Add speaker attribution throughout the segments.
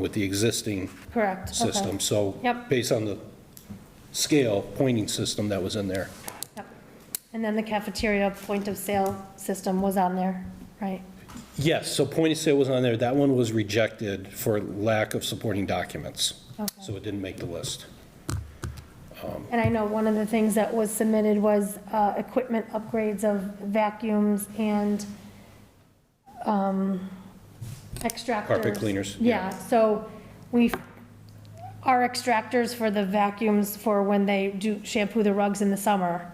Speaker 1: with the existing
Speaker 2: Correct. okay.
Speaker 1: system. So
Speaker 2: Yep.
Speaker 1: based on the scale pointing system that was in there.
Speaker 2: Yep. And then the cafeteria point of sale system was on there, right?
Speaker 1: Yes, so point of sale was on there. That one was rejected for lack of supporting documents.
Speaker 2: Okay.
Speaker 1: So it didn't make the list.
Speaker 2: And I know one of the things that was submitted was uh, equipment upgrades of vacuums and um, extractors.
Speaker 1: Carpet cleaners, yeah.
Speaker 2: Yeah, so we, our extractors for the vacuums for when they do shampoo the rugs in the summer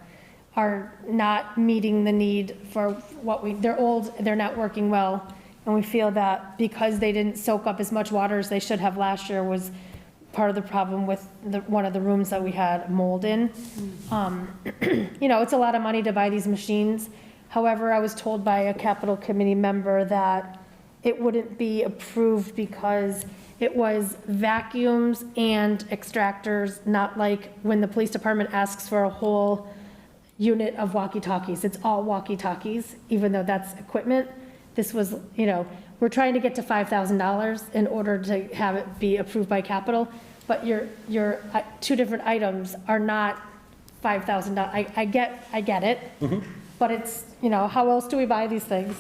Speaker 2: are not meeting the need for what we, they're old, they're not working well. And we feel that because they didn't soak up as much water as they should have last year was part of the problem with the, one of the rooms that we had mold in. Um, You know, it's a lot of money to buy these machines. However, I was told by a capital committee member that it wouldn't be approved because it was vacuums and extractors, not like when the police department asks for a whole unit of walkie-talkies. It's all walkie-talkies, even though that's equipment. This was, you know, we're trying to get to $5,000 in order to have it be approved by capital, but your, your uh, two different items are not $5,000. I, I get, I get it. But it's, you know, how else do we buy these things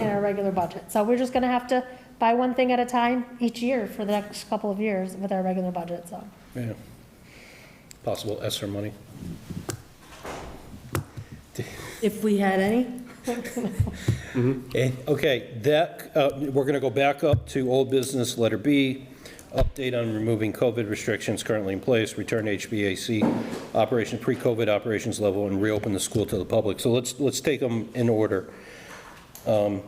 Speaker 2: in our regular budget? So we're just going to have to buy one thing at a time each year for the next couple of years with our regular budget, so.
Speaker 1: Yeah. Possible ESSER money.
Speaker 3: If we had any?
Speaker 1: Okay, okay, that, uh, we're going to go back up to old business, letter B, update on removing COVID restrictions currently in place, return to HBAC operations, pre-COVID operations level, and reopen the school to the public. So let's, let's take them in order. Um,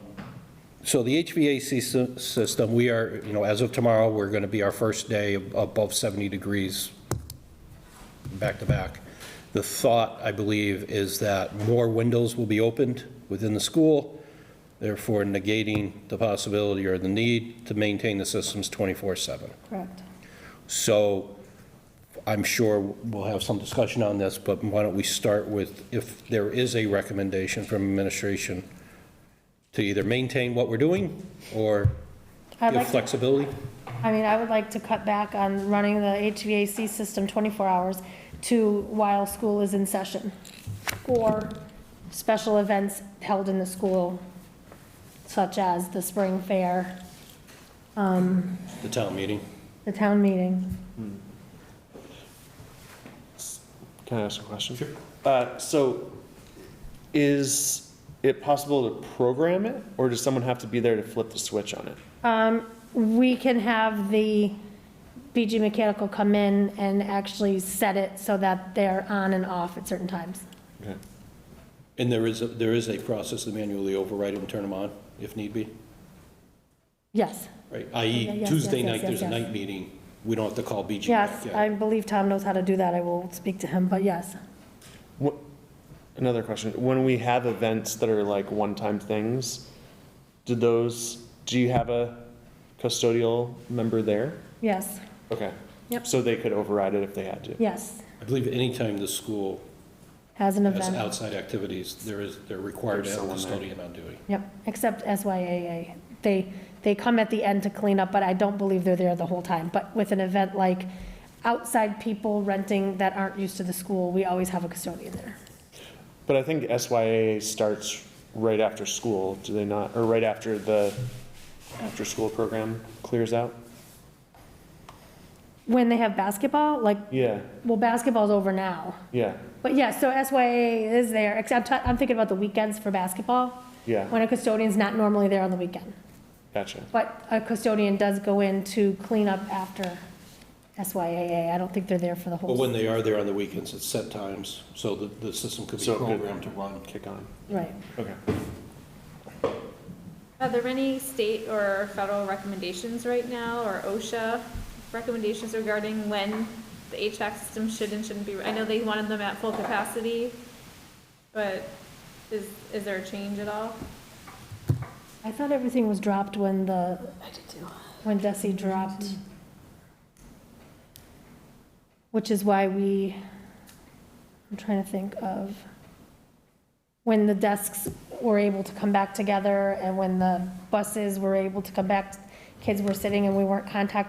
Speaker 1: So the HVAC sy- system, we are, you know, as of tomorrow, we're going to be our first day above 70 degrees back to back. The thought, I believe, is that more windows will be opened within the school, therefore negating the possibility or the need to maintain the systems 24/7.
Speaker 2: Correct.
Speaker 1: So I'm sure we'll have some discussion on this, but why don't we start with if there is a recommendation from administration to either maintain what we're doing or
Speaker 2: I'd
Speaker 1: give
Speaker 2: like to
Speaker 1: flexibility?
Speaker 2: I mean, I would like to cut back on running the HVAC system 24 hours to while school is in session, or special events held in the school, such as the spring fair,
Speaker 1: The town meeting?
Speaker 2: the town meeting.
Speaker 4: Can I ask a question? Sure. Uh, so, is it possible to program it, or does someone have to be there to flip the switch on it?
Speaker 2: We can have the BG Mechanical come in and actually set it so that they're on and off at certain times.
Speaker 4: Okay.
Speaker 1: And there is, a- there is a process to manually override them, turn them on if need be?
Speaker 2: Yes,
Speaker 1: Right,
Speaker 2: Yeah,
Speaker 1: i.e.
Speaker 2: yes,
Speaker 1: Tuesday
Speaker 2: yes,
Speaker 1: night,
Speaker 2: yes,
Speaker 1: there's a
Speaker 2: yes, yes.
Speaker 1: night meeting, we don't have to call BG back
Speaker 2: yes,
Speaker 1: yet.
Speaker 2: I believe Tom knows how to do that. I will speak to him, but yes.
Speaker 4: What, another question, when we have events that are like one-time things, do those, do you have a custodial member there?
Speaker 2: Yes,
Speaker 4: Okay.
Speaker 2: Yep.
Speaker 4: So they could override it if they had to?
Speaker 2: yes,
Speaker 1: I believe anytime the school
Speaker 2: as an
Speaker 1: has
Speaker 2: event.
Speaker 1: outside activities, there is, they're required to
Speaker 4: There's
Speaker 1: have a
Speaker 4: someone
Speaker 1: custodian on duty.
Speaker 2: Yep, except SYAA. They, they come at the end to clean up, but I don't believe they're there the whole time. But with an event like outside people renting that aren't used to the school, we always have a custodian there.
Speaker 4: But I think SYA starts right after school, do they not, or right after the after-school program clears out?
Speaker 2: When they have basketball, like,
Speaker 4: Yeah,
Speaker 2: well, basketball's over now.
Speaker 4: yeah,
Speaker 2: But yeah, so SYAA is there, except I'm thinking about the weekends for basketball, when
Speaker 4: yeah,
Speaker 2: a custodian's not normally there on the weekend.
Speaker 4: gotcha.
Speaker 2: But a custodian does go in to clean up after SYAA. I don't think they're there for the whole.
Speaker 1: But when they are there on the weekends, it's set times, so the, the system could be
Speaker 4: So it could-
Speaker 1: programmed to run.
Speaker 4: Kick on.
Speaker 2: Right.
Speaker 4: Okay.
Speaker 5: Are there any state or federal recommendations right now, or OSHA recommendations regarding when the HVAC system should and shouldn't be? I know they wanted them at full capacity, but is, is there a change at all?
Speaker 2: I thought everything was dropped when the, when Desi dropped. Which is why we, I'm trying to think of, when the desks were able to come back together and when the buses were able to come back, kids were sitting and we weren't contact